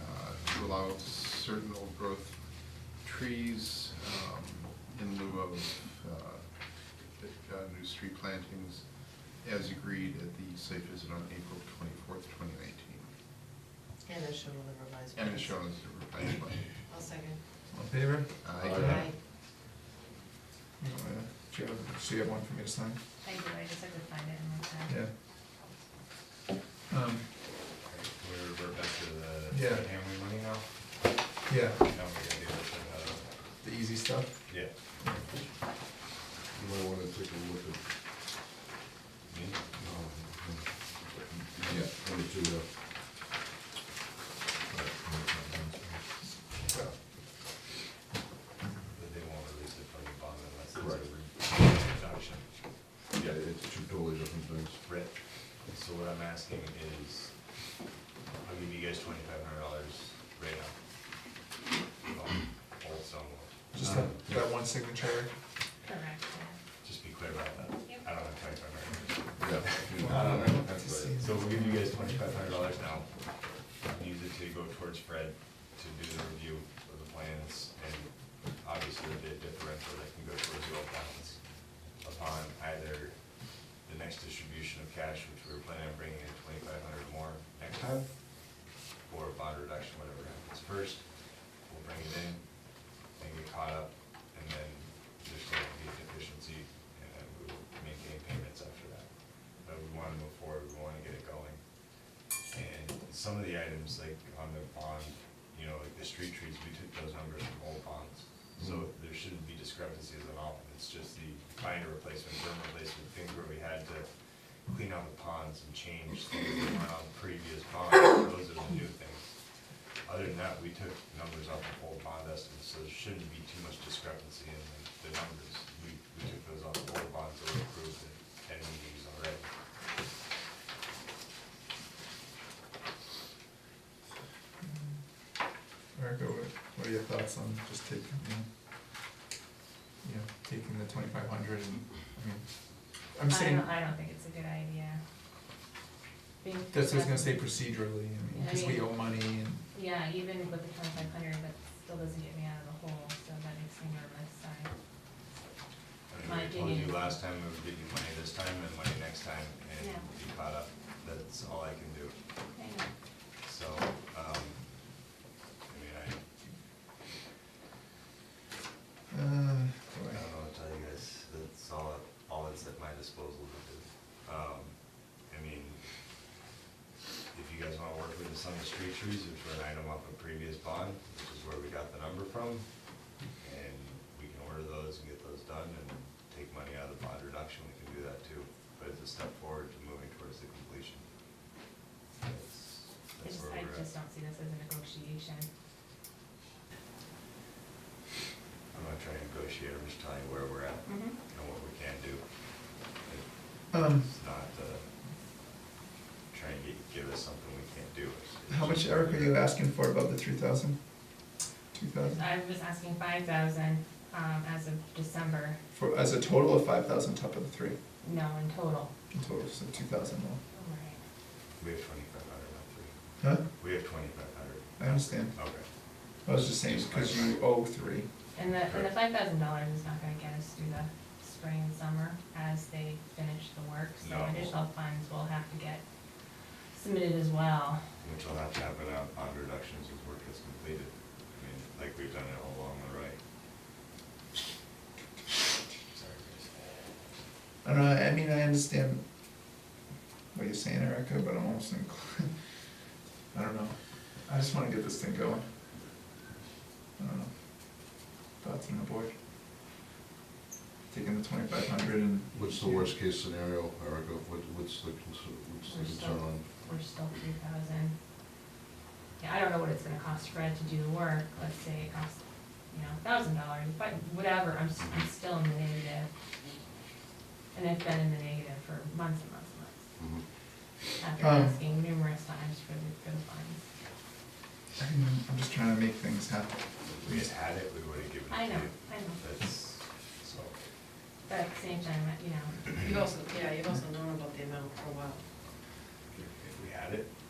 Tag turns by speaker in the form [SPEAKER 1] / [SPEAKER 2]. [SPEAKER 1] uh, to allow certain old growth trees um, in lieu of uh, uh, new street plantings as agreed at the site visit on April twenty-fourth, twenty nineteen.
[SPEAKER 2] And as shown on the revised.
[SPEAKER 1] And
[SPEAKER 2] plans.
[SPEAKER 1] as shown as the revised plan.
[SPEAKER 2] I'll second.
[SPEAKER 3] All in favor?
[SPEAKER 1] Aye.
[SPEAKER 2] Aye.
[SPEAKER 3] Uh, Do you have, so you have one for me to sign?
[SPEAKER 4] I do, I just had to find it and look at it.
[SPEAKER 3] Yeah. Um,
[SPEAKER 5] We revert back to the
[SPEAKER 3] Yeah.
[SPEAKER 5] family money now?
[SPEAKER 3] yeah,
[SPEAKER 5] Now we gotta do this, uh,
[SPEAKER 3] the easy stuff.
[SPEAKER 5] yeah.
[SPEAKER 6] You might wanna take a look at,
[SPEAKER 5] Me?
[SPEAKER 6] um, yeah, twenty-two, uh. yeah.
[SPEAKER 5] But they won't release it from the bond unless
[SPEAKER 6] Correct.
[SPEAKER 5] it's a reduction.
[SPEAKER 6] Yeah, it's two totally different things.
[SPEAKER 5] Rick, so what I'm asking is, I'll give you guys twenty-five hundred dollars right now. Um, Also,
[SPEAKER 3] Just
[SPEAKER 5] um,
[SPEAKER 3] that, that one signature.
[SPEAKER 4] Correct,
[SPEAKER 5] Just be clear about that.
[SPEAKER 4] Yep.
[SPEAKER 5] I don't have twenty-five hundred dollars.
[SPEAKER 6] Yeah. you know,
[SPEAKER 5] I don't know.
[SPEAKER 6] that's right.
[SPEAKER 5] So we'll give you guys twenty-five hundred dollars now. Use it to go towards Fred to do the review of the plans and obviously the bid differential that can go towards the old balance upon either the next distribution of cash, which we were planning on bringing in twenty-five hundred more next time, or a bond reduction, whatever happens first. We'll bring it in and get caught up and then there's going to be a deficiency and then we will maintain payments after that. But we want to move forward, we want to get it going. And some of the items, like on the bond, you know, like the street trees, we took those numbers from old bonds. So there shouldn't be discrepancies at all, it's just the binder replacement, berm replacement thing where we had to clean out the ponds and change things that were on previous bonds, those are the new things. Other than that, we took numbers off of old bond estimates, so there shouldn't be too much discrepancy in the, the numbers. We, we took those off of old bonds that were approved at ten meetings already.
[SPEAKER 3] Erica, what, what are your thoughts on just taking, you know, you know, taking the twenty-five hundred and, I mean, I'm
[SPEAKER 4] yeah. I
[SPEAKER 3] saying,
[SPEAKER 4] don't, I don't think it's a good idea. Being
[SPEAKER 3] that's what I was gonna
[SPEAKER 4] discussed-
[SPEAKER 3] say procedurally, I mean,
[SPEAKER 4] I
[SPEAKER 3] cause we
[SPEAKER 4] mean-
[SPEAKER 3] owe money and,
[SPEAKER 4] Yeah, even with the twenty-five hundred, that still doesn't get me out of the hole, so that makes me nervous, sorry.
[SPEAKER 5] I mean,
[SPEAKER 4] My
[SPEAKER 5] we told you
[SPEAKER 4] opinion.
[SPEAKER 5] last time, we would give you money this time and money next time and
[SPEAKER 4] Yeah.
[SPEAKER 5] be caught up. That's all I can do.
[SPEAKER 4] I know.
[SPEAKER 5] So, um, I mean, I,
[SPEAKER 3] uh,
[SPEAKER 5] I
[SPEAKER 3] boy.
[SPEAKER 5] don't know what to tell you guys. That's all, all that's at my disposal to do. Um, I mean, if you guys wanna work with the Summit Street Trees, which were an item off a previous bond, which is where we got the number from, and we can order those and get those done and take money out of the bond reduction, we can do that too. But it's a step forward to moving towards the completion. That's,
[SPEAKER 4] I
[SPEAKER 5] that's
[SPEAKER 4] just,
[SPEAKER 5] where
[SPEAKER 4] I
[SPEAKER 5] we're at.
[SPEAKER 4] just don't see this as a negotiation.
[SPEAKER 5] I'm not trying to negotiate, I'm just telling you where we're at
[SPEAKER 4] Mm-hmm.
[SPEAKER 5] and what we can do. It-
[SPEAKER 3] Um,
[SPEAKER 5] It's not, uh, trying to get- give us something we can't do. It's- it's
[SPEAKER 3] how much,
[SPEAKER 5] just-
[SPEAKER 3] Erica, are you asking for above the three thousand? Two thousand?
[SPEAKER 4] I was asking five thousand, um, as of December,
[SPEAKER 3] For, as a total of five thousand top of the three,
[SPEAKER 4] no, in total.
[SPEAKER 3] in total, so two thousand more.
[SPEAKER 4] Right.
[SPEAKER 5] We have twenty-five hundred, not three.
[SPEAKER 3] Huh?
[SPEAKER 5] We have twenty-five hundred.
[SPEAKER 3] I understand.
[SPEAKER 5] Okay.
[SPEAKER 3] I was just saying, because you owe three.
[SPEAKER 4] And the, and the
[SPEAKER 5] Correct.
[SPEAKER 4] five thousand dollars is not gonna get us through the spring and summer as they finish the work, so
[SPEAKER 5] No.
[SPEAKER 4] additional funds will have to get submitted as well.
[SPEAKER 5] Which will have to happen on, on reductions as work gets completed. I mean, like we've done it all along the way. Sorry, guys.
[SPEAKER 3] I don't know, I mean, I understand what you're saying, Erica, but I'm almost inclined, I don't know. I just wanna get this thing going. I don't know. Thoughts on the board? Taking the twenty-five hundred and.
[SPEAKER 6] What's the worst case scenario, Erica? What, what's the, concern- what's the
[SPEAKER 4] We're still-
[SPEAKER 6] concern on?
[SPEAKER 4] We're still three thousand. Yeah, I don't know what it's gonna cost Fred to do the work, let's say it costs, you know, thousand dollars, but whatever, I'm, s- I'm still in the negative. And I've been in the negative for months and months and months,
[SPEAKER 6] Mhm.
[SPEAKER 4] after
[SPEAKER 3] Um.
[SPEAKER 4] asking numerous times for the, for the funds.
[SPEAKER 3] I don't know, I'm just trying to make things happen.
[SPEAKER 5] If we just had it, we would've given it to you.
[SPEAKER 4] I know, I know.
[SPEAKER 5] That's, so,
[SPEAKER 4] But at the same time, you know,
[SPEAKER 2] You've also, yeah, you've also known about the amount for a while.
[SPEAKER 5] if we had it,